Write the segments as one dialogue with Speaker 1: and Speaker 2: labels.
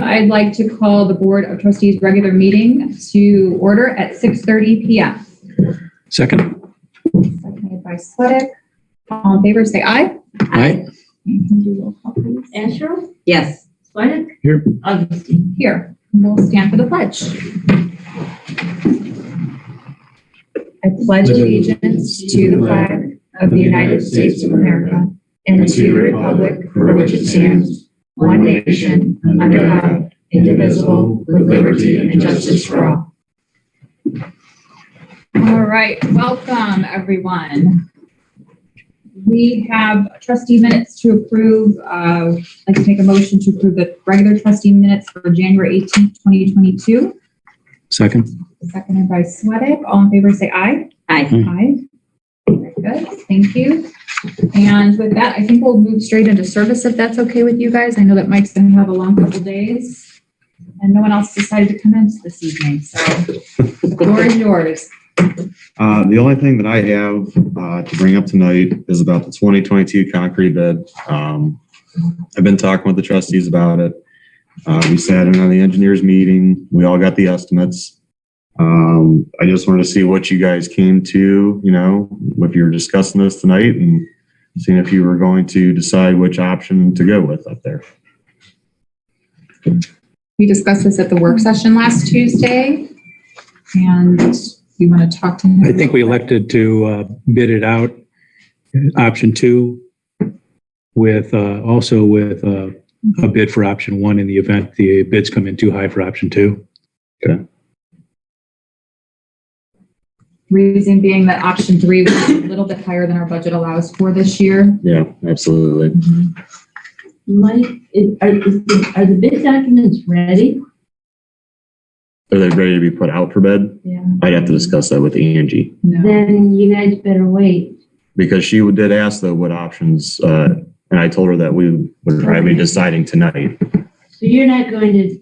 Speaker 1: I'd like to call the Board of Trustees' regular meeting to order at 6:30 PM.
Speaker 2: Second?
Speaker 1: Seconded by Sweattick. All in favor, say aye.
Speaker 2: Aye.
Speaker 1: And can you roll call, please?
Speaker 3: Asher,
Speaker 4: Yes.
Speaker 3: Sweattick?
Speaker 2: Here.
Speaker 3: Oh, Augustine?
Speaker 1: Here, we'll stand for the pledge. I pledge allegiance to the flag of the United States of America and to the republic for which it stands, one nation, under God, indivisible, with liberty and justice for all. All right, welcome, everyone. We have trustee minutes to approve. Uh, I'd like to make a motion to approve the regular trustee minutes for January 18th, 2022,
Speaker 2: Second?
Speaker 1: seconded by Sweattick. All in favor, say aye.
Speaker 4: Aye.
Speaker 1: Aye. Very good, thank you. And with that, I think we'll move straight into service if that's okay with you guys. I know that Mike's going to have a long couple days. And no one else decided to come in this evening, so the floor is yours.
Speaker 5: Uh, the only thing that I have, uh, to bring up tonight is about the twenty twenty-two concrete bid. Um, I've been talking with the trustees about it. Uh, we sat in on the engineers meeting. We all got the estimates. Um, I just wanted to see what you guys came to, you know, if you were discussing this tonight and seeing if you were going to decide which option to go with up there.
Speaker 1: We discussed this at the work session last Tuesday, and you want to talk to him?
Speaker 2: I think we elected to uh, bid it out, option two, with, uh, also with uh, a bid for option one in the event the bids come in too high for option two.
Speaker 1: Reason being that option three was a little bit higher than our budget allows for this year.
Speaker 5: Yeah, absolutely.
Speaker 3: Mike, is- are, is the- are the bid documents ready?
Speaker 5: Are they ready to be put out for bid?
Speaker 3: Yeah.
Speaker 5: I'd have to discuss that with Angie.
Speaker 1: No.
Speaker 3: Then you guys better wait.
Speaker 5: because she did ask though what options, uh, and I told her that we would probably be deciding tonight.
Speaker 3: So you're not going to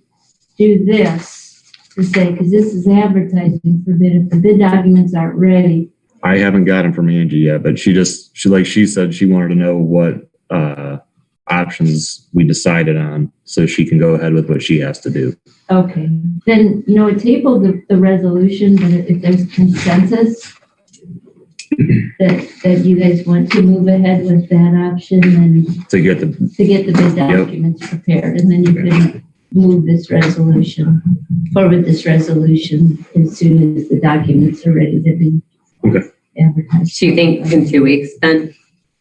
Speaker 3: do this to say, because this is advertising for bid. If the bid documents aren't ready,
Speaker 5: I haven't gotten from Angie yet, but she just, she like she said, she wanted to know what, uh, options we decided on so she can go ahead with what she has to do.
Speaker 3: okay. Then, you know, it tabled the, the resolution, but if there's consensus that, that you guys want to move ahead with that option, then
Speaker 5: To get the,
Speaker 3: to get the bid documents prepared, and then you can move this resolution, forward this resolution as soon as the documents are ready to be
Speaker 5: Okay.
Speaker 3: advertised.
Speaker 4: So you think in two weeks then?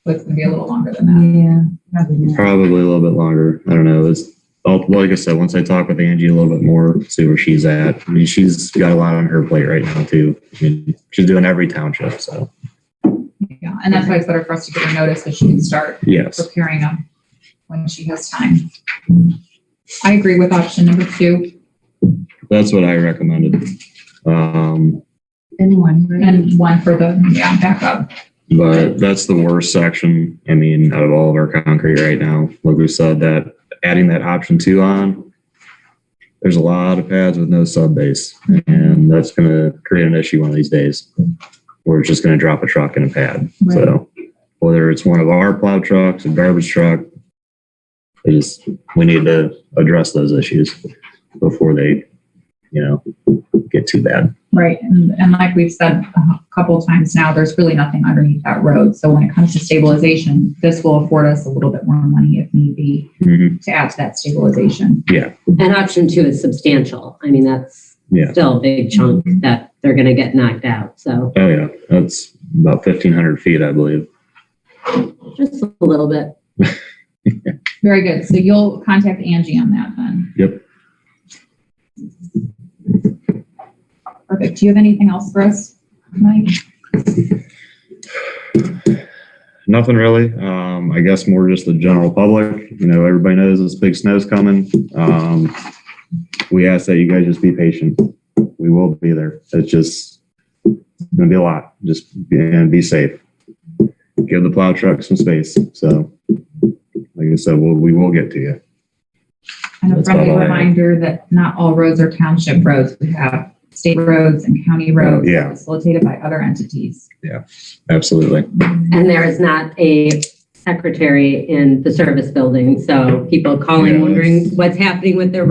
Speaker 1: It's gonna be a little longer than that.
Speaker 3: Yeah, probably not.
Speaker 5: probably a little bit longer. I don't know. It's, oh, like I said, once I talk with Angie a little bit more, see where she's at. I mean, she's got a lot on her plate right now too. I mean, she's doing every township, so,
Speaker 1: Yeah, and that's why it's better for us to get a notice so she can start
Speaker 5: yes.
Speaker 1: preparing them when she has time. I agree with option number two.
Speaker 5: That's what I recommended. Um,
Speaker 3: Anyone, right?
Speaker 1: And one for the, yeah, backup.
Speaker 5: But that's the worst section, I mean, out of all of our concrete right now. Like we said, that adding that option two on, there's a lot of pads with no sub base, and that's gonna create an issue one of these days. We're just gonna drop a truck in a pad, so whether it's one of our plow trucks, a garbage truck, it is, we need to address those issues before they, you know, get too bad.
Speaker 1: Right, and, and like we've said a couple of times now, there's really nothing underneath that road. So when it comes to stabilization, this will afford us a little bit more money if need be
Speaker 5: Mhm.
Speaker 1: to add to that stabilization.
Speaker 4: And option two is substantial. I mean, that's
Speaker 5: Yeah.
Speaker 4: still a big chunk that they're going to get knocked out. So
Speaker 5: Oh, yeah, that's about fifteen hundred feet, I believe.
Speaker 4: just a little bit.
Speaker 1: Very good. So you'll contact Angie on that then?
Speaker 5: Yep.
Speaker 1: Perfect. Do you have anything else for us, Mike?
Speaker 5: Nothing really. Um, I guess more just the general public. You know, everybody knows this big snow's coming. Um, we ask that you guys just be patient. We will be there. It's just it's gonna be a lot. Just be, and be safe. Give the plow truck some space. So, like I said, we'll, we will get to you.
Speaker 1: And a
Speaker 5: That's
Speaker 1: friendly
Speaker 5: all I have.
Speaker 1: reminder that not all roads are township roads. We have state roads and county roads
Speaker 5: yeah.
Speaker 1: facilitated by other entities.
Speaker 5: Absolutely.
Speaker 4: And there is not a secretary in the service building. So people calling,
Speaker 5: Yes.
Speaker 4: wondering what's happening with their